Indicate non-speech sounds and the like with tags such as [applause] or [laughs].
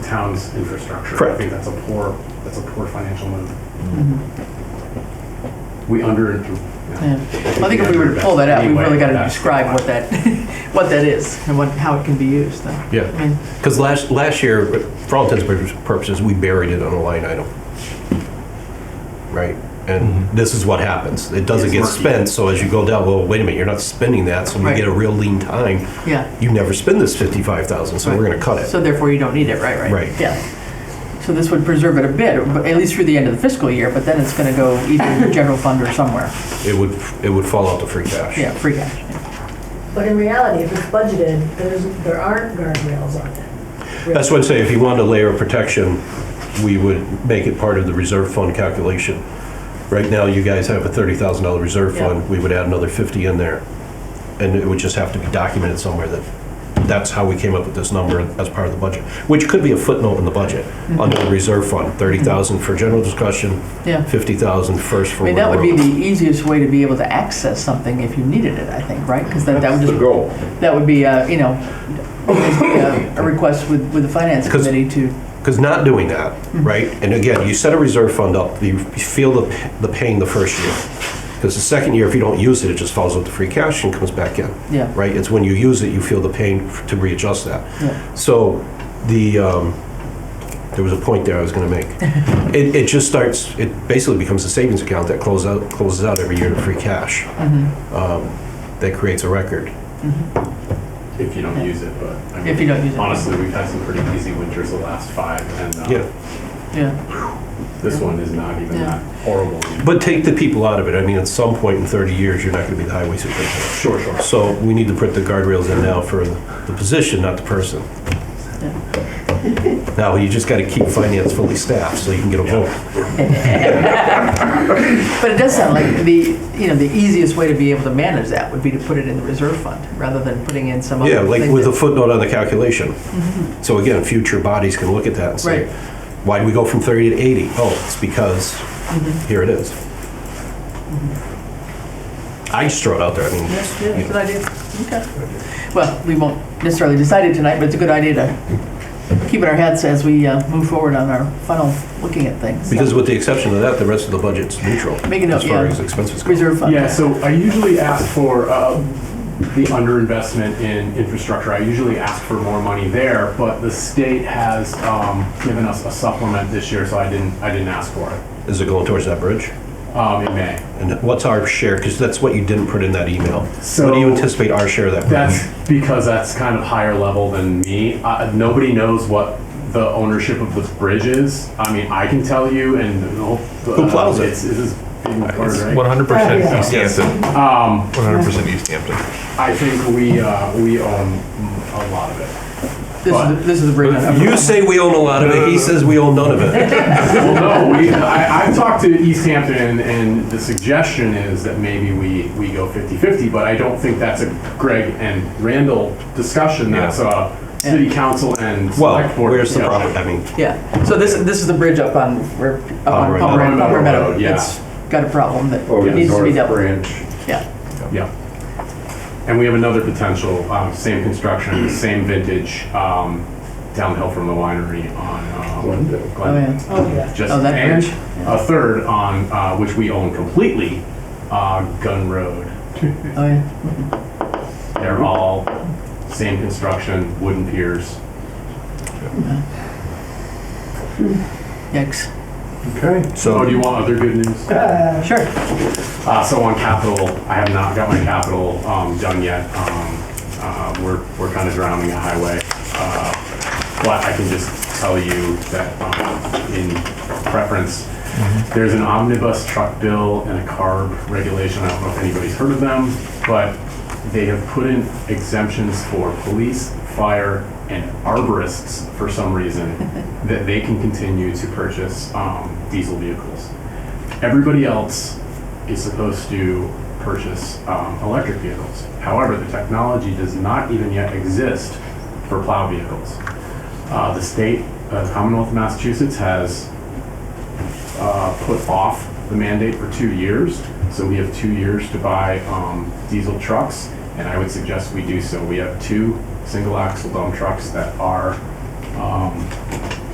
town's infrastructure. I Correct. think that's a poor, that's a poor financial move. Mm-hmm. We under. Yeah. I think if we were to pull that out, we really gotta describe what that, [laughs] what that is and what, how it can be used then. I Yeah, mean, because last, last year, for all intents and purposes, we buried it on a line item. Right? And this is what happens. It doesn't It's get murky. spent, so as you go down, well, wait a minute, you're not spending that, so we Right. get a real lean time. Yeah. You never spend this 55,000, so we're Right. going to cut it. So therefore you don't need it, right, right? Right. Yeah. So this would preserve it a bit, but at least through the end of the fiscal year, but then it's gonna go either in the general fund or somewhere. It would, it would fall out to free cash. Yeah, free cash. yeah. But in reality, if it's budgeted, there's, there aren't guardrails on it. That's what I'd say, if you wanted a layer of protection, we would make it part of the reserve fund calculation. Right now, you guys have a $30,000 reserve Yeah. fund, we would add another 50 in there. And it would just have to be documented somewhere that, that's how we came up with this number as part of the budget, which could be a footnote in the budget, Mm-hmm. under the reserve fund, 30,000 for general discussion, Yeah. 50,00 first I for. mean, that would be railroad. the easiest way to be able to access something if you needed it, I think, right? Because that, that would That's just. the goal. That would be, uh, you know, basically uh, a a request with, with the finance 'Cause- committee to, Because not doing that, right? And again, you set a reserve fund up, you feel the, the pain the first year. Because the second year, if you don't use it, it just falls out to free cash and comes back in. Yeah. Right? It's when you use it, you feel the pain f- to readjust that. Yeah. So the, um, there was a point there I was gonna make. It, it just starts, it basically becomes a savings account that closes out, closes out every year to free cash. Mm-hmm. Um, That creates a record. If you don't use it, but. I mean, If you don't use it. Honestly, we've had some pretty easy winters the last five, and uh, Yeah. yeah, this one is not even Yeah. that horrible. But take the people out of it. I mean, at some point in 30 years, you're not gonna be the highway superintendent. Sure, sure. So we need to put the guardrails in now for the position, not the [laughs] person. Now, you just gotta keep finance fully staffed so you can get a vote. but it does sound like the, you know, the easiest way to be able to manage that would be to put it in the reserve fund rather than putting in some other Yeah, thing. like with a that- footnote on the calculation. So again, future bodies can look at that and say, Mm-hmm. Right. why did we go from 30 to 80? Oh, it's because, Mm-hmm. here it is. I just throw it out there, I mean, Yes, Mm-hmm. yeah, good idea, okay. Well, we won't necessarily decide it tonight, but it's a good idea to keep in our heads as we uh, move forward on our funnel, looking at things. So, because with the exception of that, the rest of the budget's neutral. Make a note, As far yeah. as expenses go. Reserve fund. Yeah, so I usually ask for uh, the underinvestment in infrastructure. I usually ask for more money there, but the state has um, given us a supplement this year, so I didn't, I didn't ask for it Is it going towards that bridge? um, in May. And what's our share? Because that's what you didn't put in that email. What So- do you anticipate our share of that? That's because that's kind of higher level than me. Uh, nobody knows what the ownership of the bridge is. I I mean, I can tell you, and uh, Who plows it? It's, it's, It's it's, 100% East Yes. Hampton. um, 100% East Hampton. I think we uh, we own a lot of it. This is, the- this is the bridge. You say we own a lot of it. He says we own none of [laughs] it. Well, no, we, I, I've talked to East Hampton, and the suggestion is that maybe we, we go 50-50, but I don't think that's a Greg and Randall discussion. That's a city council and Well, select board where's the discussion. problem? I mean, Yeah, so this, this is the bridge up on, where- up on Palmer- Palmer Palmer Palmer Meadow. Road, yeah. It's got a problem that Over the needs to be north dealt with. branch. Yeah, Yeah. And we have another potential, um, same construction, same vintage, um, downhill from the winery on, um, Glendale. Glendale. Oh, Oh, yeah. Just, Oh, that and bridge. a third on, uh, which we own completely, uh, Gun Road. oh, yeah. They're all same construction, wooden piers. Yikes. Okay. Oh, do so you want other good news? Sure. Uh, so on capital, I have not got my capital, um, done yet. Um, uh, we're, we're kind of drowning a highway. Uh, But I can just tell you that, um, in preference, there's an omnibus truck bill and a CARB regulation. I don't know if anybody's heard of them, but they have put in exemptions for police, fire, and arborists for some reason, that they can continue to purchase, um, diesel vehicles. Everybody else is supposed to purchase um, electric vehicles. However, the technology does not even yet exist for plow vehicles. Uh, the state, uh, Commonwealth of Massachusetts, has uh, put off the mandate for two years. So we have two years to buy um, diesel trucks, and I would suggest we do so. We have two single axle dump trucks that are um,